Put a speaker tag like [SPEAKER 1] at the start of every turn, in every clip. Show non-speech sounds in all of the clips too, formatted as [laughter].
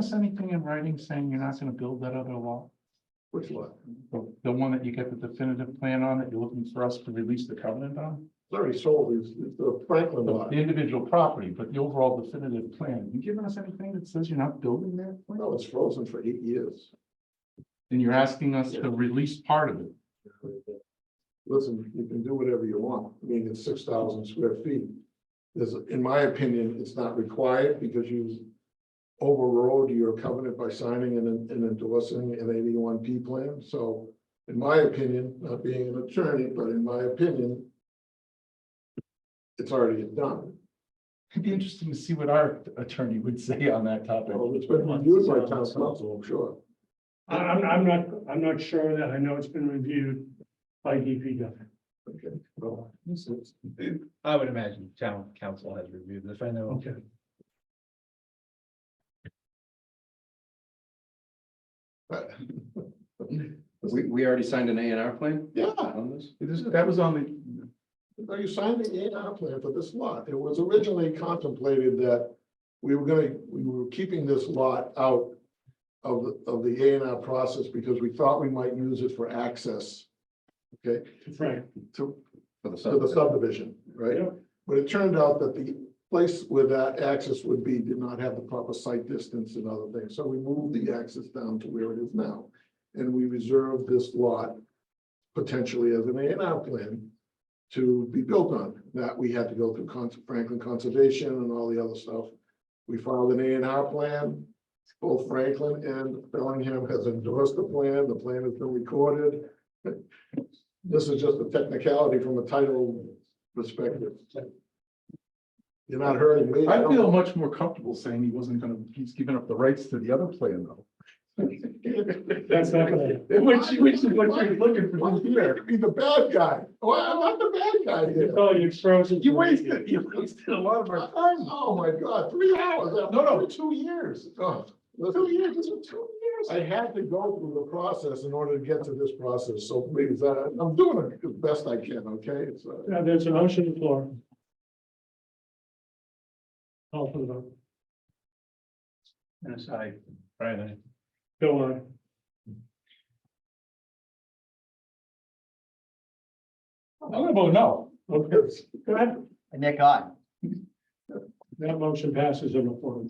[SPEAKER 1] us anything in writing saying you're not gonna build that other wall?
[SPEAKER 2] Which lot?
[SPEAKER 1] The, the one that you get the definitive plan on that you're looking for us to release the covenant on?
[SPEAKER 2] It's already sold, it's, it's the Franklin
[SPEAKER 1] The
[SPEAKER 2] lot.
[SPEAKER 1] the individual property, but the overall definitive plan, you giving us anything that says you're not building that?
[SPEAKER 2] No, it's frozen for eight years.
[SPEAKER 1] And you're asking us to release part of it.
[SPEAKER 2] Listen, you can do whatever you want. I mean, it's six thousand square feet. There's, in my opinion, it's not required because you overrode your covenant by signing and, and endorsing an eighty-one P plan. So in my opinion, not being an attorney, but in my opinion, it's already done.
[SPEAKER 1] It'd be interesting to see what our attorney would say on that topic.
[SPEAKER 2] Well, it's been reviewed by town council, I'm sure.
[SPEAKER 3] I- I'm, I'm not, I'm not sure that, I know it's been reviewed by DPW.
[SPEAKER 2] Okay, well, this is-
[SPEAKER 4] I would imagine town council has reviewed this, I know.
[SPEAKER 3] Okay.
[SPEAKER 2] but-
[SPEAKER 5] We, we already signed an A and R plan
[SPEAKER 2] Yeah,
[SPEAKER 5] on this?
[SPEAKER 1] That was on the,
[SPEAKER 2] No, you signed the A and R plan for this lot. It was originally contemplated that we were gonna, we were keeping this lot out of, the of the A and R process because we thought we might use it for access
[SPEAKER 3] Frank,
[SPEAKER 2] to,
[SPEAKER 5] For the
[SPEAKER 2] to the
[SPEAKER 5] subdivision?
[SPEAKER 2] subdivision, right?
[SPEAKER 3] Yeah.
[SPEAKER 2] But it turned out that the place where that access would be did not have the proper site distance and other things, so we moved the access down to where it is now. And we reserved this lot potentially as an A and R plan to be built on. That we had to go through Cons- Franklin Conservation and all the other stuff. We filed an A and R plan. Both Franklin and Bellingham has endorsed the plan. The plan has been recorded. [laughs] This is just a technicality from a title perspective. You're not hurting me.
[SPEAKER 1] I
[SPEAKER 2] don't- [laughs]
[SPEAKER 1] feel much more comfortable saying he wasn't gonna, he's giving up the rights to the other plan though. [laughs]
[SPEAKER 3] that's not gonna,
[SPEAKER 1] Which, which is what you're looking
[SPEAKER 2] Why
[SPEAKER 1] for
[SPEAKER 2] do you have
[SPEAKER 1] here.
[SPEAKER 2] to Be the bad guy. Well, I'm not the bad guy here.
[SPEAKER 3] oh, you frozen.
[SPEAKER 1] You wasted, you wasted a lot of our time.
[SPEAKER 2] Oh, my God, three hours.
[SPEAKER 1] No, no,
[SPEAKER 2] two years. Two years, this was two years. I had to go through the process in order to get to this process, so please, uh, I'm doing it the best I can, okay? It's, uh,
[SPEAKER 3] Now, there's an motion on the floor. Call for the vote,
[SPEAKER 4] And aside, Brian,
[SPEAKER 3] go on.
[SPEAKER 1] I'm gonna vote no.
[SPEAKER 3] Okay, go ahead.
[SPEAKER 6] Nick, I.
[SPEAKER 3] That motion passes on the floor.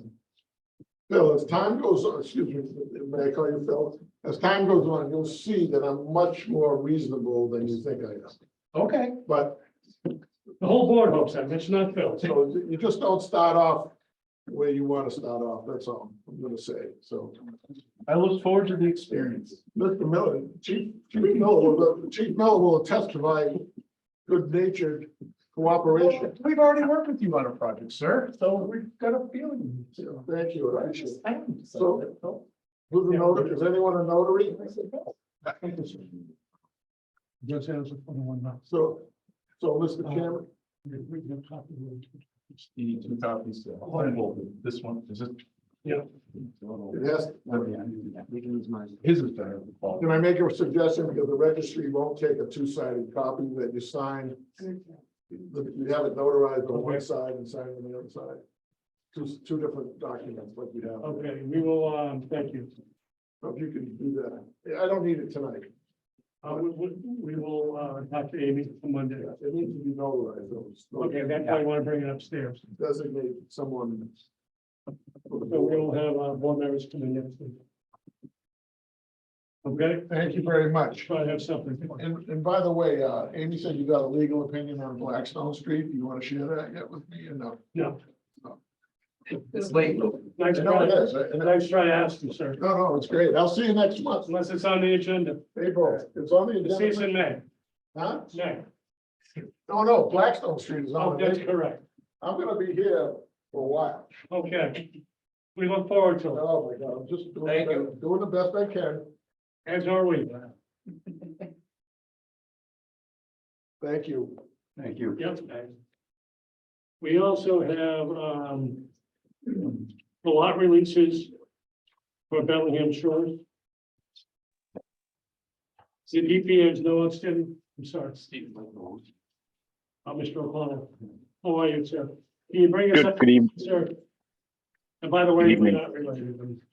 [SPEAKER 2] Phil, as time goes on, excuse me, may I call you Phil? As time goes on, you'll see that I'm much more reasonable than you think I am.
[SPEAKER 1] Okay.
[SPEAKER 2] But,
[SPEAKER 3] The whole board hopes that, that's not Phil.
[SPEAKER 2] so you just don't start off where you want to start off, that's all I'm gonna say, so.
[SPEAKER 1] I look forward to the experience.
[SPEAKER 2] Mr. Miller, Chief, Chief Miller, will- Chief Miller will attest to my good natured cooperation.
[SPEAKER 1] We've already worked with you on a project, sir, so we've got a feeling.
[SPEAKER 2] So, Thank you. I appreciate it.
[SPEAKER 1] So.
[SPEAKER 2] Who's the notary? Is anyone a notary?
[SPEAKER 3] Just answer for the one now.
[SPEAKER 2] So, so Mr. Chairman,
[SPEAKER 3] We can talk to you.
[SPEAKER 1] You need two copies. uh, one will- This one, is it?
[SPEAKER 3] Yeah.
[SPEAKER 2] it has,
[SPEAKER 1] His is better.
[SPEAKER 2] can I make a suggestion? Because the registry won't take a two-sided copy that you sign. You have it notarized on one side and signed on the other side. Two, two different documents like you have.
[SPEAKER 3] Okay, we will, um, thank you.
[SPEAKER 2] If you can do that. Yeah, I don't need it tonight.
[SPEAKER 3] Uh, we, we, we will, uh, talk to Amy for Monday.
[SPEAKER 2] It needs to be notarized. though. It's not-
[SPEAKER 3] Okay, that's why I wanna bring it upstairs.
[SPEAKER 2] designate someone.
[SPEAKER 3] So we'll have, uh, board members come in next week. Okay,
[SPEAKER 2] Thank you very much.
[SPEAKER 3] try to have something.
[SPEAKER 2] And, and by the way, uh, Amy said you got a legal opinion on Blackstone Street. Do you want to share that yet with me or no?
[SPEAKER 5] It's late.
[SPEAKER 3] Nice
[SPEAKER 2] No,
[SPEAKER 3] try,
[SPEAKER 2] it is. I- I-
[SPEAKER 3] nice try to ask you, sir.
[SPEAKER 2] No, no, it's great. I'll see you next month.
[SPEAKER 3] Unless it's on the agenda.
[SPEAKER 2] April, it's on the
[SPEAKER 3] The
[SPEAKER 2] agenda.
[SPEAKER 3] season May,
[SPEAKER 2] Huh?
[SPEAKER 3] May.
[SPEAKER 2] No, no, Blackstone Street is
[SPEAKER 3] Oh,
[SPEAKER 2] on. the
[SPEAKER 3] that's
[SPEAKER 2] agenda.
[SPEAKER 3] correct.
[SPEAKER 2] I'm gonna be here for a while.
[SPEAKER 3] Okay. We look forward to it,
[SPEAKER 2] Oh, my God, I'm just doing,
[SPEAKER 4] Thank
[SPEAKER 2] the- doing the best I can.
[SPEAKER 3] as are we.
[SPEAKER 2] Thank you.
[SPEAKER 5] Thank you.
[SPEAKER 3] Yep. We also have, um, the lot releases for Bellingham Shores. The DP has no outstanding, I'm sorry, Steve. Uh, Mr. O'Connor, how are you, sir? Can you bring us
[SPEAKER 7] Good,
[SPEAKER 3] up,
[SPEAKER 7] good evening.
[SPEAKER 3] sir? And by the way,
[SPEAKER 7] Good
[SPEAKER 3] we're
[SPEAKER 7] evening.
[SPEAKER 3] not related.